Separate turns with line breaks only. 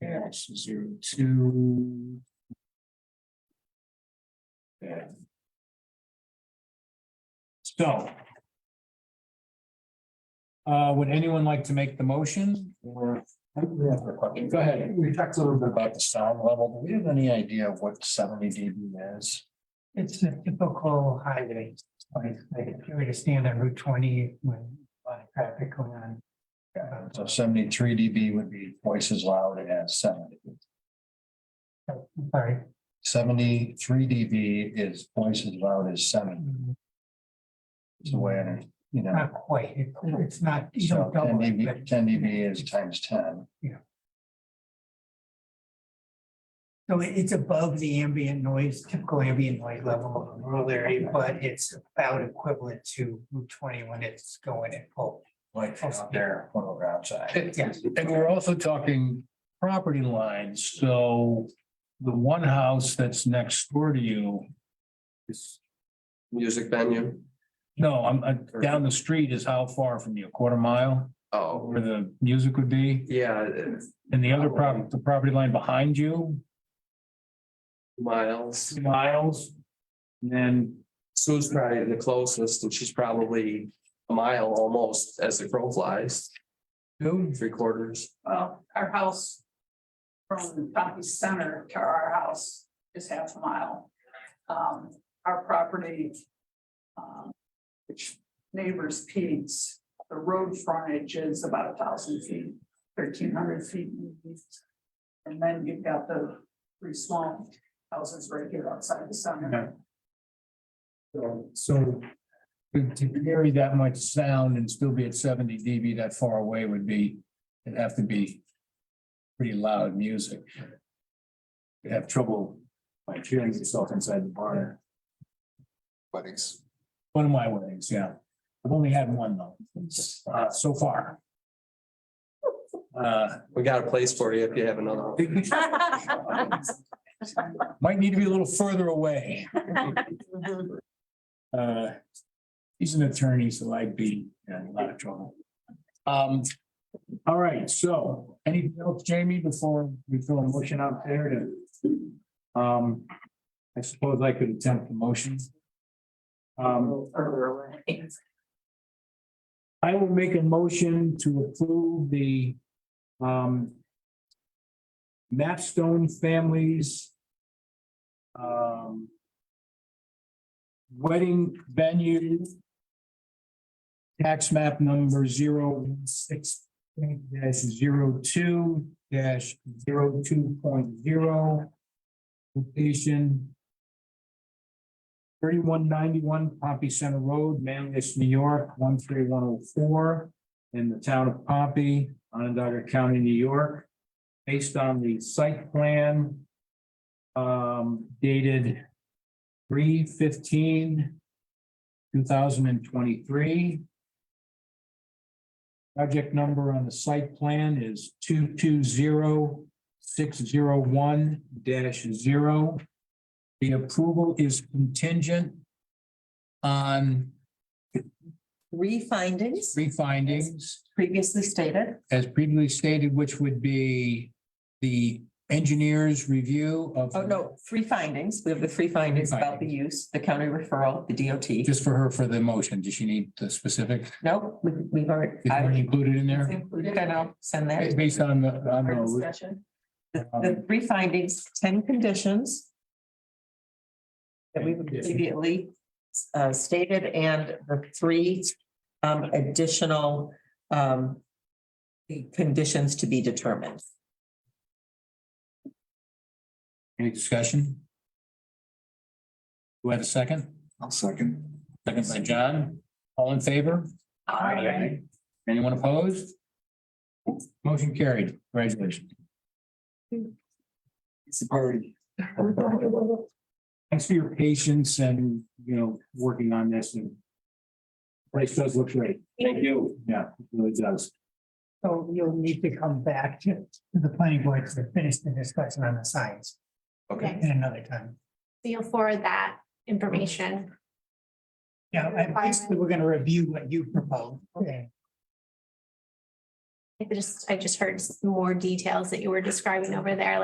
dash zero two. Yeah. So. Uh, would anyone like to make the motion or? Go ahead.
We talked a little bit about the sound level. Do we have any idea of what seventy dB is?
It's a typical highway, like, like if you were to stand on Route twenty when a lot of traffic going on. uh,
So seventy-three dB would be twice as loud as seventy.
I'm Sorry.
Seventy-three dB is twice as loud as seven. It's the way, I- you know.
Not quite, It- it's not, you
So
don't
ten
double it, but
dB, ten dB is times ten.
So it- it's above the ambient noise, typical ambient noise level of a rural area, but it's about equivalent to Route twenty when it's going at full.
Like out there, when we're outside.
Yes.
And we're also talking property lines, so the one house that's next door to you is,
Music venue.
no, I'm, uh, down the street is how far from you, a quarter mile
Oh,
where the music would be?
yeah, it's
And the other property, the property line behind you,
miles.
two miles? And then,
Sue's probably the closest and she's probably a mile almost as the crow flies,
two?
three quarters.
Well, our house from Coffee Center to our house is half a mile. Um, our property, um, which neighbors Pete's, the road frontage is about a thousand feet, thirteen hundred feet. And then you've got the three small houses right here outside the center.
So to to carry that much sound and still be at seventy dB that far away would be, it'd have to be pretty loud music. You'd have trouble like hearing yourself inside the barn.
Weddings.
One of my weddings, yeah. I've only had one though, uh, so far. Uh,
We got a place for you if you have another. one.
Might need to be a little further away. Uh, he's an attorney, so I'd be in a lot of trouble. Um, all right, so anything else, Jamie, before we throw a motion out there to? Um, I suppose I could attempt the motion. Um, I will make a motion to approve the, um, Mapstone Families um, wedding venue tax map number zero six dash zero two dash zero two point zero location thirty-one ninety-one Pompey Center Road, Manlius, New York, one three one oh four in the town of Pompey, Onondaga County, New York, based on the site plan um, dated three fifteen two thousand and twenty-three. Project number on the site plan is two two zero six zero one dash zero. The approval is contingent on
three findings
three findings.
previously stated.
as previously stated, which would be the engineer's review of.
Oh, no, three findings. We have the three findings about the use, the county referral, the DOT.
Just for her, for the motion, does she need the specific,
No, we- we've already,
is
I
already included in there?
included and I'll send that.
Based on the, on
Our
the,
discussion.
The
um,
the three findings, ten conditions that we've previously uh, stated and the three um, additional um, conditions to be determined.
any discussion? Do I have a second?
I'll second.
Second by John, all in favor? Anyone opposed? Motion carried, congratulations.
It's a party.
Thanks for your patience and, you know, working on this and place does look great.
Thank you.
Yeah, it really does.
So you'll need to come back to to the planning board to finish the discussion on the signs
Okay,
at another time.
you'll forward that information.
Yeah, and basically, we're gonna review what you proposed. Okay.
I just, I just heard some more details that you were describing over there,